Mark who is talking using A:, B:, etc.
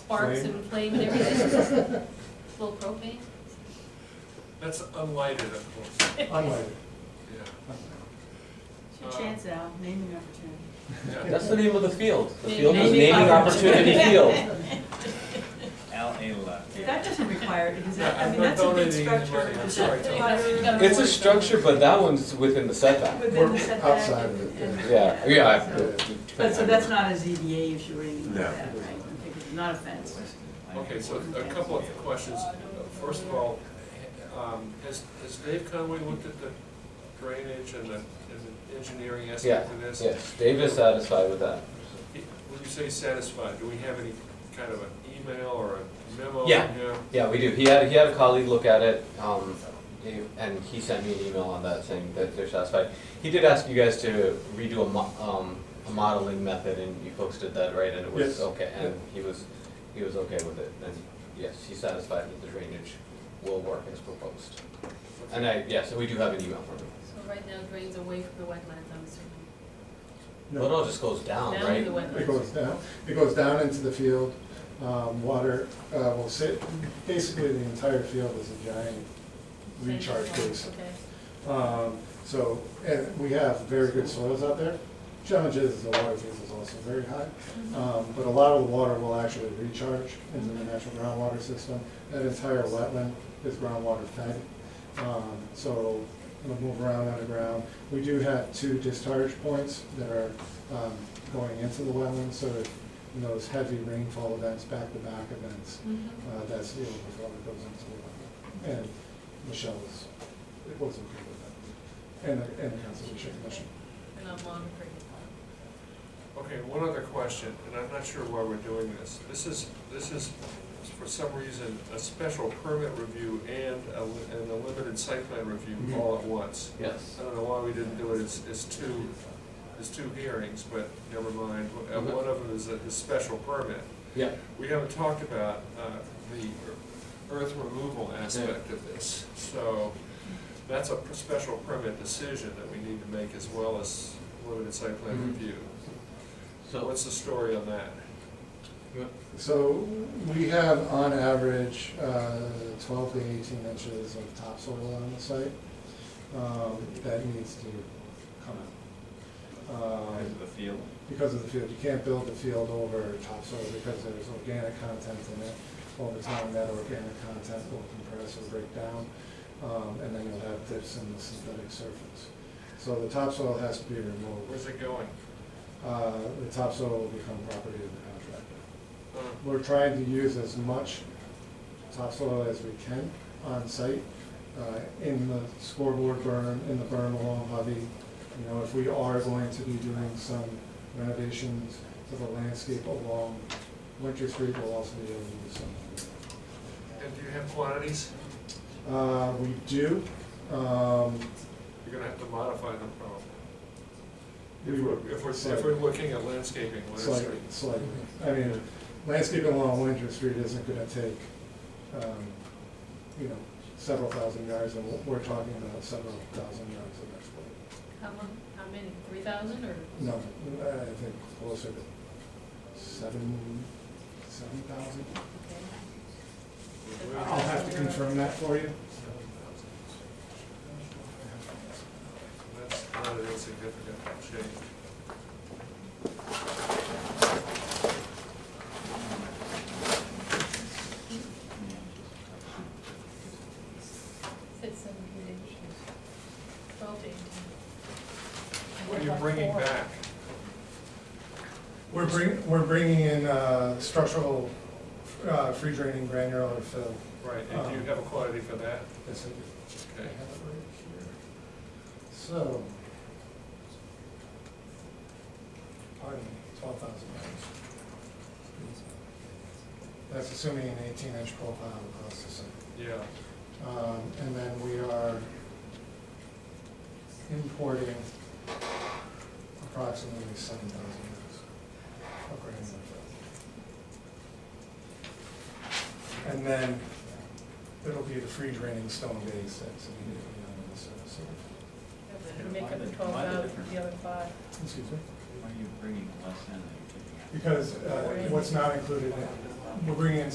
A: sparks
B: Flame.
A: and flame and everything. Little propane.
C: That's unlighted, of course,
B: Unlighted.
C: yeah,
D: It's your chance, Al, naming opportunity.
C: yeah.
E: That's the name of the field. The
A: Naming
E: field is
A: Naming
E: Naming Opportunity
A: Opportunity.
E: Field.
F: Al Ayla.
D: That doesn't require, because that,
C: Yeah,
D: I
C: I'm
D: mean,
C: not
D: that's a big
C: donating any
D: structure.
C: money, I'm
D: It's
C: sorry,
D: a
C: Tom.
D: modern-
E: It's a structure, but that one's within the setback.
D: Within
B: We're
D: the setback.
B: outside
D: and-
B: of it,
D: and-
E: Yeah, yeah. I-
D: So- But, so that's not a ZBA issue or anything like
F: No.
D: that, right? I think it's not a fence.
C: Okay, so a couple of questions. First of all, um, has, has Dave Conway looked at the drainage and the, and the engineering
E: Yeah,
C: aspect of this?
E: yes, Dave is satisfied with that.
C: When you say satisfied, do we have any kind of an email or a memo?
E: Yeah. Yeah, we do. He had, he had a colleague look at it, um, he- and he sent me an email on that saying that they're satisfied. He did ask you guys to redo a mo- um, a modeling method, and you folks did that, right? And it
B: Yes.
E: was okay, and he was, he was okay with it, and yes, he's satisfied that the drainage will work as proposed. And I, yes, and we do have an email from him.
A: So right now drains away from the wetlands, I'm assuming.
E: Well, it all just goes down,
A: Down
E: right?
A: the wetlands.
B: It goes down, it goes down into the field, um, water, uh, will sit, basically the entire field is a giant recharge basin.
A: Okay.
B: Um, so, and we have very good soils out there. Challenge is the water table is also very high, um, but a lot of the water will actually recharge into the natural groundwater system. That entire wetland is groundwater fed, um, so it'll move around underground. We do have two discharge points that are, um, going into the wetland, so that in those heavy rainfall events, back-to-back events,
A: Mhm.
B: uh, that's the overflow that goes into the wetland. And Michelle was, it was okay with that, and, the- and the Conservation Commission.
A: And I'm monitoring it.
C: Okay, one other question, and I'm not sure why we're doing this. This is, this is, for some reason, a special permit review and a, li- and a limited site plan review all at once.
E: Mm-hmm. Yes.
C: I don't know why we didn't do it, it's, it's two, it's two hearings, but never mind. And one of them is a, is special permit.
E: Mm-hmm. Yeah.
C: We haven't talked about, uh, the earth removal aspect of this, so that's a special permit decision that we need to make as well as limited site plan
E: Mhm.
C: review.
E: So,
C: What's the story on that?
B: So we have on average uh, twelve to eighteen inches of topsoil on the site um, that needs to come out. Um,
F: Into the field.
B: because of the field, you can't build the field over topsoil because there's organic content in it. Over time, that organic content will compress and break down, um, and then you'll have dips in the synthetic surface. So the topsoil has to be removed.
C: Where's it going?
B: Uh, The topsoil will become property of the contractor.
C: Uh,
B: We're trying to use as much topsoil as we can on site, uh, in the scoreboard burn, in the burn along Hovey. You know, if we are going to be doing some renovations to the landscape along Winter Street, we'll also be able to do some.
C: And do you have quantities?
B: Uh, we do, um,
C: You're gonna have to modify them probably.
B: we
C: If
B: were.
C: we're, if we're, if we're looking at landscaping, what is
B: Slightly,
C: it?
B: slightly. I mean, landscaping along Winter Street isn't gonna take, um, you know, several thousand yards, and we're- we're talking about several thousand yards of extra.
A: How mon- how many, three thousand or?
B: No, I think closer to seven, seven thousand.
A: Okay.
B: I'll have to confirm that for you.
C: That's not an insignificant change.
A: Said seventeen inches. Twelve to eighteen.
C: What are you bringing back?
B: We're bringing, we're bringing in uh, structural, uh, free draining granular fill.
C: Right, and do you
B: Uh,
C: have a quantity for that?
B: Yes, I do. I
C: Okay.
B: have it right here. So. Pardon, twelve thousand dollars. That's assuming an eighteen inch profile across the site.
C: Yeah,
B: Um, and then we are importing approximately seven thousand pounds of grain. And then it'll be the free draining stone base that's immediately on the surface.
A: Make up the twelve thousand, the other five.
B: Excuse me?
F: Why are you bringing less in than you're taking out?
B: Because, uh, what's not uh, included in, we're bringing in